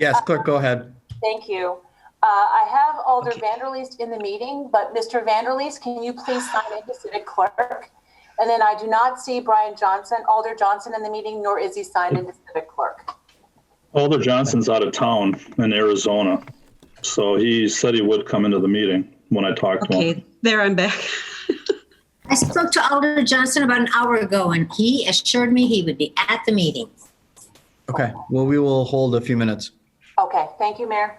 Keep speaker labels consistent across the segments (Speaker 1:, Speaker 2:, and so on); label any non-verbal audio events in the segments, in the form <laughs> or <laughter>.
Speaker 1: Yes, clerk, go ahead.
Speaker 2: Thank you. Uh, I have Alder
Speaker 3: Okay.
Speaker 2: Vanderleest in the meeting, but Mr. Vanderleest, can you please sign in to Civic Clerk? And then I do not see Brian Johnson, Alder Johnson in the meeting, nor is he signed into Civic Clerk.
Speaker 4: Alder Johnson's out of town in Arizona, so he said he would come into the meeting when I talked to him.
Speaker 5: Okay, there I'm back. <laughs>
Speaker 6: I spoke to Alder Johnson about an hour ago, and he assured me he would be at the meeting.
Speaker 1: Okay, well, we will hold a few minutes.
Speaker 2: Okay, thank you, Mayor.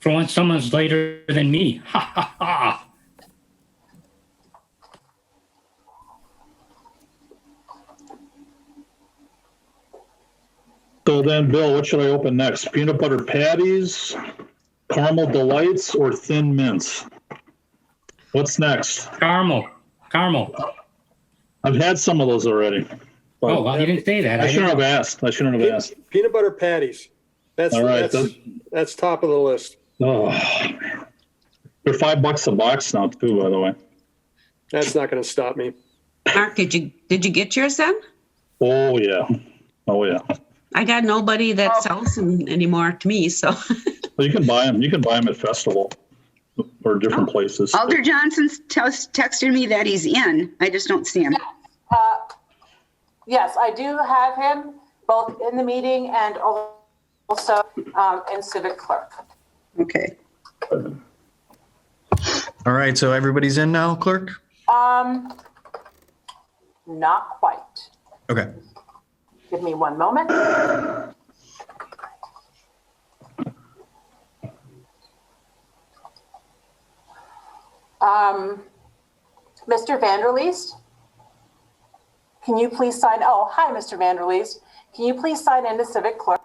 Speaker 7: For once, someone's later than me. <laughs> Ha ha ha.
Speaker 4: So then, Bill, what should I open next? Peanut butter patties, caramel delights, or thin mints? What's next?
Speaker 7: Carmel. Carmel.
Speaker 4: I've had some of those already. but
Speaker 7: Oh, well, you didn't say that.
Speaker 4: I
Speaker 7: I
Speaker 4: shouldn't
Speaker 7: didn't-
Speaker 4: have asked. I shouldn't have asked.
Speaker 8: Peanut butter patties. That's,
Speaker 4: All right,
Speaker 8: that's, that's top of the list.
Speaker 4: Oh, they're five bucks a box now, too. By the way.
Speaker 8: That's not going to stop me.
Speaker 5: Mark, did you, did you get yours then?
Speaker 4: Oh yeah. Oh yeah.
Speaker 5: I got nobody
Speaker 9: Oh.
Speaker 5: that sells them anymore to me, so. <laughs>
Speaker 4: Well, you can buy them. You can buy them at festival or different places.
Speaker 9: Alder Johnson's tes- texted me that he's in. I just don't see him.
Speaker 2: Uh, Yes, I do have him both in the meeting and also um, in Civic Clerk.
Speaker 9: Okay.
Speaker 1: All right, so everybody's in now, clerk?
Speaker 2: Um, Not quite.
Speaker 1: Okay.
Speaker 2: Give me one moment. Um, Mr. Vanderleest? Can you please sign, oh, hi, Mr. Vanderleest. Can you please sign in to Civic Clerk?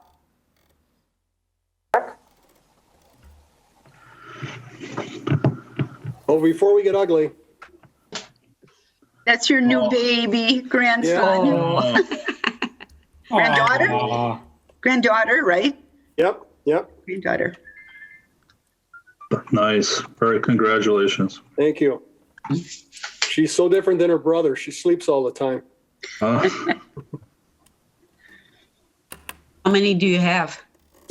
Speaker 8: Oh, before we get ugly,
Speaker 9: That's your new
Speaker 4: Oh.
Speaker 9: baby grandson,
Speaker 4: Oh.
Speaker 9: Granddaughter?
Speaker 7: Aw.
Speaker 9: granddaughter, right?
Speaker 8: yep, yep.
Speaker 9: Granddaughter.
Speaker 4: Nice. Very congratulations.
Speaker 8: Thank you. She's so different than her brother. She sleeps all the time.
Speaker 4: Uh,
Speaker 5: How many do you have?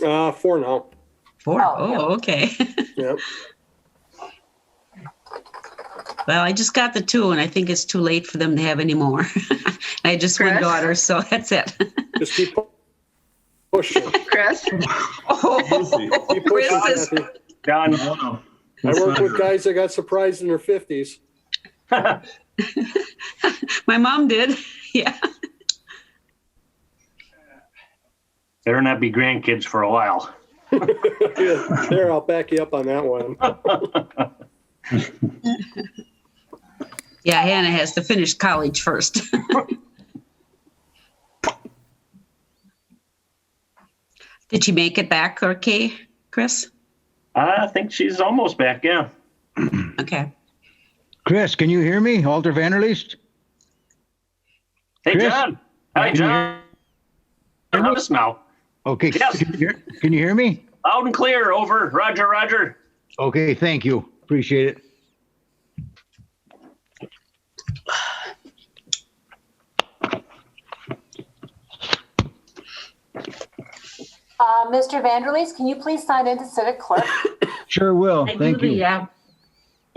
Speaker 8: Uh, four now.
Speaker 5: Four.
Speaker 2: Oh, yeah.
Speaker 5: Oh, okay. <laughs>
Speaker 8: Yep.
Speaker 5: Well, I just got the two and I think it's too late for them to have any more. <laughs> I had just one
Speaker 9: Correct.
Speaker 5: daughter, so <laughs> that's it.
Speaker 8: Just keep pu- pushing.
Speaker 9: Chris?
Speaker 5: Oh,
Speaker 8: Keep pushing,
Speaker 5: Chris is-
Speaker 8: Kathy.
Speaker 3: Done.
Speaker 4: I
Speaker 8: I worked with guys that got surprised in their fifties.
Speaker 5: <laughs>
Speaker 8: <laughs>
Speaker 5: My mom did, <laughs> yeah.
Speaker 3: Better not be grandkids for a while.
Speaker 8: There, I'll back you up on that one.
Speaker 5: Yeah, Hannah has to finish college first. <laughs> Did she make it back okay, Chris?
Speaker 3: I think she's almost back. Yeah.
Speaker 5: Okay.
Speaker 10: Chris, can you hear me? Alder Vanderleest?
Speaker 3: Hey,
Speaker 10: Chris?
Speaker 3: John. Hi,
Speaker 10: Can you
Speaker 3: John. Heard us now.
Speaker 10: Okay.
Speaker 3: Yes.
Speaker 10: Can you hear- can you hear me?
Speaker 3: Loud and clear. Over. Roger. Roger.
Speaker 10: Okay, thank you. Appreciate it.
Speaker 2: Uh, Mr. Vanderleest, can you please sign in to Civic Clerk?
Speaker 10: Sure will.
Speaker 5: I
Speaker 10: Thank
Speaker 5: do
Speaker 10: you.
Speaker 5: the, uh,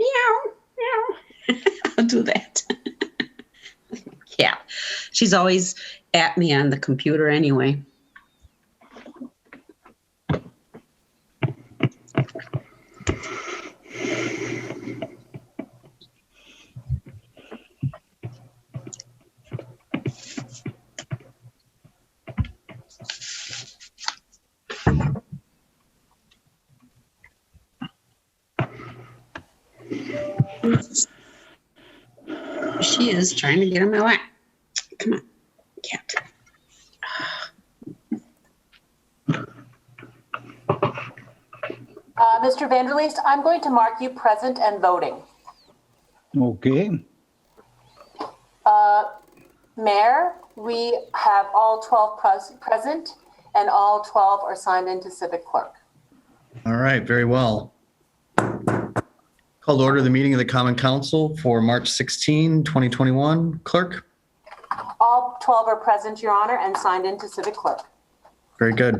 Speaker 5: meow, meow. <laughs> I'll do that. <laughs> yeah, she's always at me on the computer anyway. She is trying to get in my lap. Come on, cat.
Speaker 2: Uh, Mr. Vanderleest, I'm going to mark you present and voting.
Speaker 10: Okay.
Speaker 2: Uh, Mayor, we have all 12 pres- present, and all 12 are signed into Civic Clerk.
Speaker 1: All right, very well. Call to order the meeting of the Common Council for March 16, 2021. Clerk?
Speaker 2: All 12 are present, Your Honor, and signed into Civic Clerk.
Speaker 1: Very good.